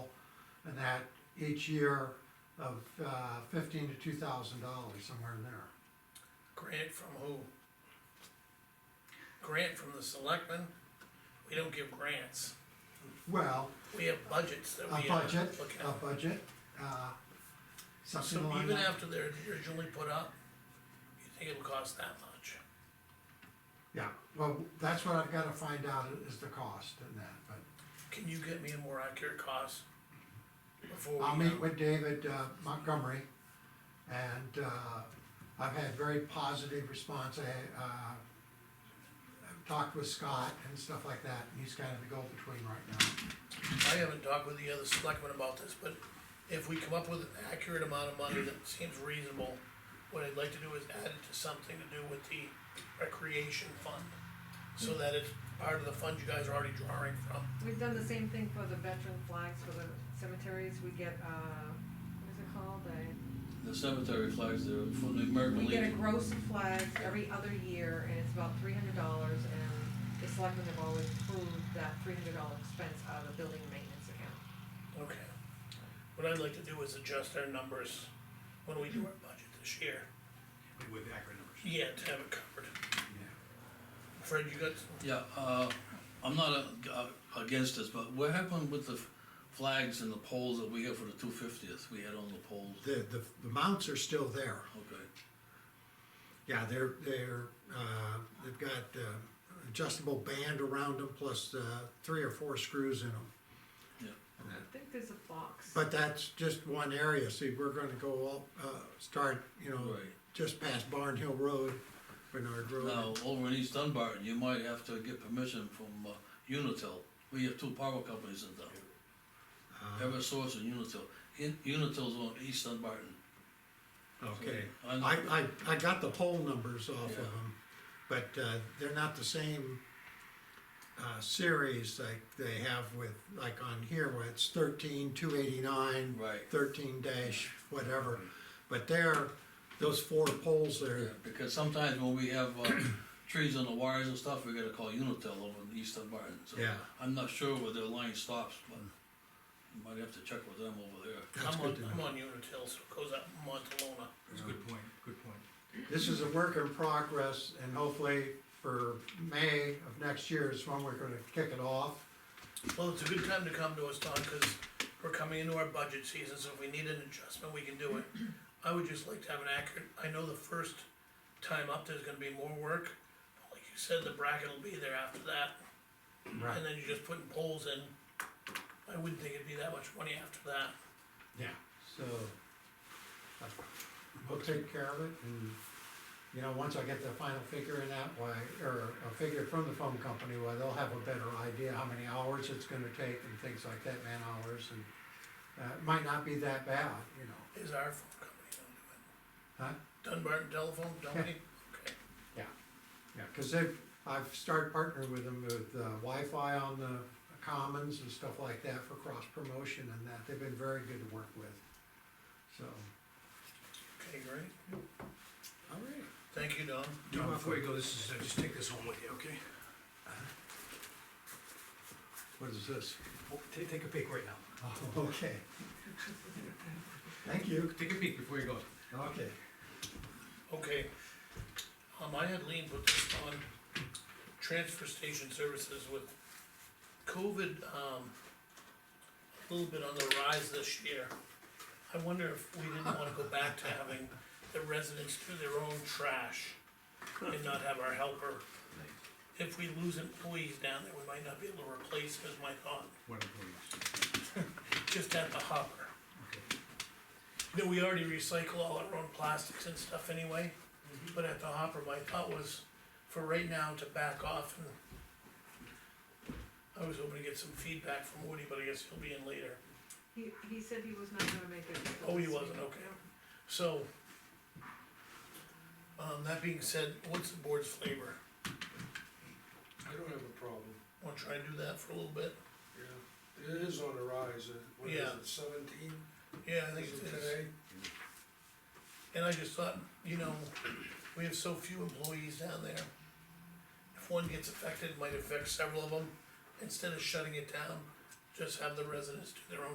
that each year of uh, fifteen to two thousand dollars, somewhere in there. Grant from who? Grant from the selectmen? We don't give grants. Well, We have budgets that a we have. budget, look at. a budget, uh, So something like even that. after they're originally put up, you think it'll cost that much? Yeah, well, that's what I've gotta find out is the cost and that, but Can you get me a more accurate cost? Before we. I'll uh, meet with David uh, Montgomery. And, uh, I've had very positive response, I, uh, I've talked with Scott and stuff like that, and he's kinda the go-between right now. I haven't talked with the other selectmen about this, but if we come up with an accurate amount of money that seems reasonable, what I'd like to do is add it to something to do with the recreation fund. Hmm. So that it's part of the fund you guys are already drawing from. We've done the same thing for the veteran flags for the cemeteries, we get, uh, what is it called, a, The cemetery flags, they're from the American we get a Legion. gross of flags every other year, and it's about three hundred dollars, and the selectmen have always pulled that three hundred dollar expense out of the building maintenance account. Okay. What I'd like to do is adjust our numbers when we do our budget this year. with accurate numbers. Yeah, to have it covered. Yeah. Fred, you got, some- Yeah, uh, I'm not uh, uh, against this, but what happened with the f- flags and the poles that we have for the two fiftieth, we had on the poles? The, the, the mounts are still there. Okay, Yeah, they're, they're, uh, they've got uh, adjustable band around them plus uh, three or four screws in them. yeah, I think there's a box. But that's just one area, see, we're gonna go all, uh, start, you know, Right. just past Barn Hill Road, Bernard now, Road. over in East Dunbarton, you might have to get permission from, uh, Unitil, we have two power companies in town. Uh-huh. Eversource and Unitil, in, Unitil's on East Dunbarton. Okay, I know. I, I, I got the pole numbers off of Yeah. them, but uh, they're not the same uh, series like they have with, like on here, where it's thirteen, two eighty-nine, Right. thirteen dash, whatever. But there, those four poles Yeah, there, because sometimes when we have, uh, trees on the wires and stuff, we gotta call Unitil over in East Dunbarton, so. yeah, I'm not sure where their line stops, but you might have to check with them over there. that's I'm on, good to I'm know. on Unitil, so it goes up Montalona. That's a good point, good point. This is a work in progress, and hopefully for May of next year is when we're gonna kick it off. Well, it's a good time to come to us, Don, because we're coming into our budget season, so if we need an adjustment, we can do it. I would just like to have an accurate, I know the first time up, there's gonna be more work. but Like you said, the bracket will be there after that, and then you're just putting poles in. I wouldn't think it'd be that much money after that. Yeah. So, uh, we'll take care of it, and, you know, once I get the final figure in that way, or a figure from the phone company, well, they'll have a better idea how many hours it's gonna take and things like that, man hours, and, uh, it might not be that bad, you know. Is our phone company gonna do it? Huh? Dunbarton Telephone Company? Okay, Yeah, cause they've, I've started partnering with them with uh, Wi-Fi on the commons and stuff like that for cross promotion and that, they've been very good to work with. So, okay, great. All right. Thank you, Don. Tom, before you go, this is, uh, just take this home with you, okay? what is this? Oh, Take, take a peek right now. Oh, Okay. Thank you. Take a peek before you go. Okay. Okay, um, I had Lean put this on transfer station services with COVID, um, a little bit on the rise this year. I wonder if we didn't wanna go back to having the residents do their own trash and not have our helper. If we lose employees down there, we might not be able to replace, is my thought, One employees. just at the hopper. Okay. that we already recycle all our own plastics and stuff anyway. But at the hopper, my thought was for right now to back off and I was hoping to get some feedback from Woody, but I guess he'll be in later. He, he said he was not gonna make it. Oh, he wasn't, okay. So, um, that being said, what's the board's flavor? I don't have a problem, Wanna try and do that for a little bit? yeah. It is on the rise, uh, what is Yeah. it, seventeen, Yeah, I think is it's, it today? and I just thought, you know, we have so few employees down there. If one gets affected, it might affect several of them. Instead of shutting it down, just have the residents do their own